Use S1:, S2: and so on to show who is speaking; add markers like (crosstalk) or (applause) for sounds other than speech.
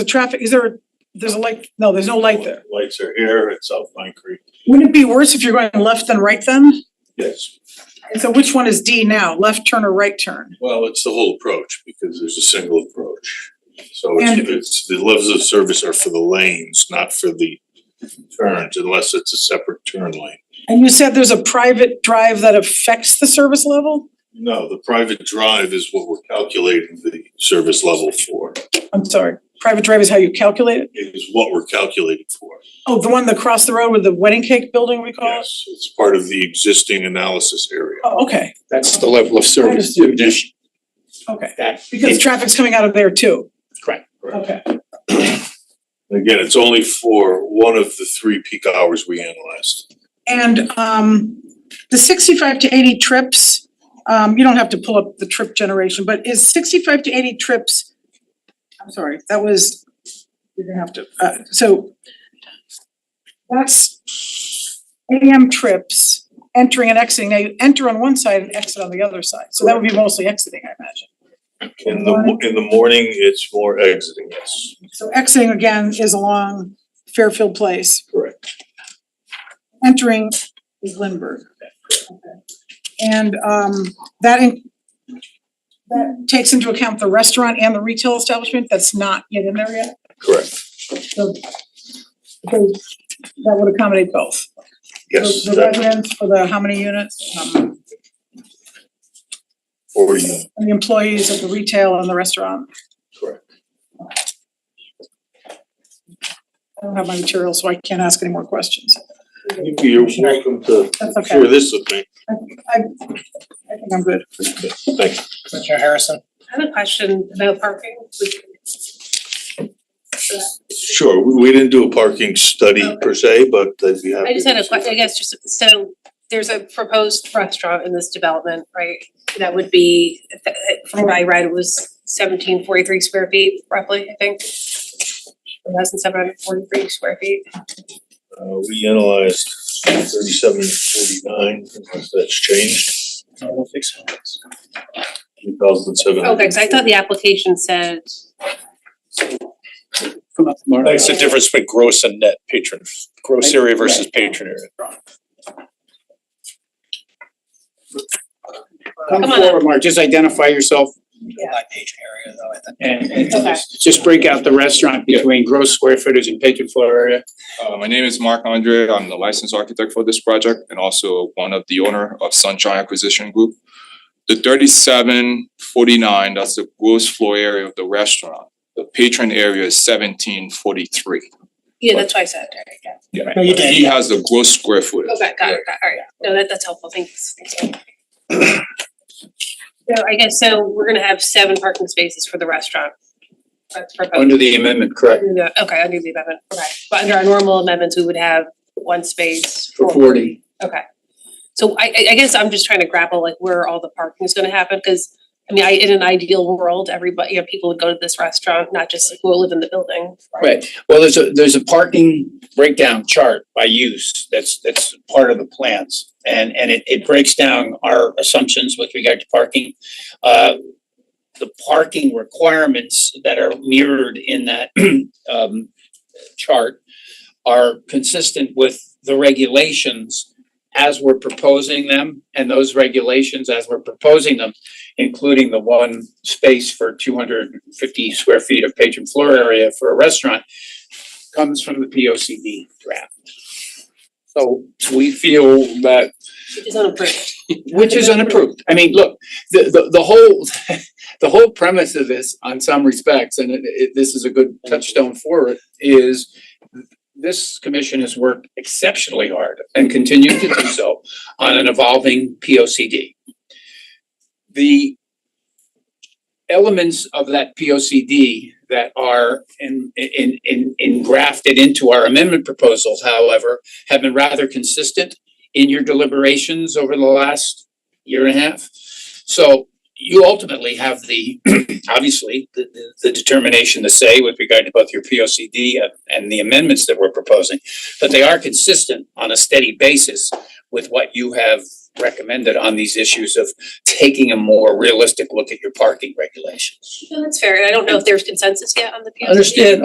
S1: the traffic, is there, a- there's a light, no, there's no light there.
S2: Lights are here, it's South Pine Creek,
S1: Wouldn't it be worse if you're going left than right then?
S2: yes.
S1: And so which one is D now, left turn or right turn?
S2: Well, it's the whole approach, because there's a single approach. So it's,
S1: And-
S2: it's, the levels of service are for the lanes, not for the turns, unless it's a separate turn lane.
S1: And you said there's a private drive that affects the service level?
S2: No, the private drive is what we're calculating the service level for,
S1: I'm sorry, private drive is how you calculate it?
S2: It is what we're calculating for.
S1: Oh, the one that crossed the road with the wedding cake building we call it?
S2: Yes, it's part of the existing analysis area.
S1: Oh, okay,
S3: That's the level of service
S1: Understood.
S3: dish
S1: okay,
S3: that.
S1: because traffic's coming out of there too.
S3: Correct.
S1: Okay,
S2: Again, it's only for one of the three peak hours we analyzed.
S1: and um the sixty-five to eighty trips, um you don't have to pull up the trip generation, but is sixty-five to eighty trips? I'm sorry, that was, you're gonna have to, uh so that's AM trips, entering and exiting, now you enter on one side and exit on the other side, so that would be mostly exiting, I imagine.
S2: In the, mo- in the morning, it's more exiting, yes.
S1: So exiting again is along Fairfield Place.
S2: Correct.
S1: Entering is Lindbergh. And um that in that takes into account the restaurant and the retail establishment that's not yet in there yet,
S2: Correct.
S1: so so that would accommodate both.
S2: Yes,
S1: The the
S2: that,
S1: residents for the how many units, um
S2: or you,
S1: and the employees of the retail and the restaurant.
S2: correct.
S1: I don't have my material, so I can't ask any more questions.
S2: You're welcome to
S1: That's okay.
S2: share this with me.
S1: I think I'm good.
S2: Thank you.
S4: Commissioner Harrison,
S5: I have a question about parking.
S2: Sure, we, we didn't do a parking study per se, but I'd be happy.
S5: I just had a
S2: to-
S5: que- I guess just, so there's a proposed restaurant in this development, right? That would be, from what I read, it was seventeen forty-three square feet roughly, I think. One thousand seven hundred forty-three square feet.
S2: Uh, we analyzed thirty-seven forty-nine, unless that's changed,
S3: I don't think so.
S2: two thousand seven.
S5: Okay, cause I thought the application said,
S3: That's the difference between gross and net patrons, gross area versus patron area.
S5: Come
S3: Come
S5: on up.
S3: forward, Mark, just identify yourself
S4: my patron area though, I
S3: and
S4: think.
S3: and
S5: Okay.
S3: just break out the restaurant between gross square footage and patron floor area.
S6: Uh, my name is Mark Andre. I'm the licensed architect for this project and also one of the owner of Sunshine Acquisition Group. The thirty-seven forty-nine, that's the gross floor area of the restaurant. The patron area is seventeen forty-three.
S5: yeah, that's what I said, right, yeah.
S4: No, you did,
S6: He has the gross square footage.
S5: Okay, got it, got it, alright, no, that that's helpful, thanks, thanks. So I guess, so we're gonna have seven parking spaces for the restaurant. That's proposed.
S3: Under the amendment, correct,
S5: Under the- Okay, under the amendment, okay, but under our normal amendments, we would have one space
S3: for forty.
S5: Okay, so I I I guess I'm just trying to grapple like where all the parking is gonna happen, cause I mean, I, in an ideal world, everybody, you know, people would go to this restaurant, not just people who live in the building.
S3: Right, well, there's a, there's a parking breakdown chart by use, that's, that's part of the plans. And, and it, it breaks down our assumptions with regard to parking. Uh, the parking requirements that are mirrored in that, (clears throat) um, chart are consistent with the regulations as we're proposing them, and those regulations as we're proposing them, including the one space for two hundred and fifty square feet of patron floor area for a restaurant, comes from the P O C D draft. So we feel that,
S5: Which is unapproved.
S3: which is unapproved. I mean, look, the, the, the whole, (laughs) the whole premise of this on some respects, and it, it, this is a good touchstone for it, is this commission has worked exceptionally hard and continues to do so on an evolving P O C D. The elements of that P O C D that are in, in, in, engrafted into our amendment proposals, however, have been rather consistent in your deliberations over the last year and a half. So you ultimately have the, (clears throat) obviously, the, the, the determination to say with regard to both your P O C D and, and the amendments that we're proposing, but they are consistent on a steady basis with what you have recommended on these issues of taking a more realistic look at your parking regulations.
S5: No, that's fair, and I don't know if there's consensus yet on the P O C D.
S3: Understand,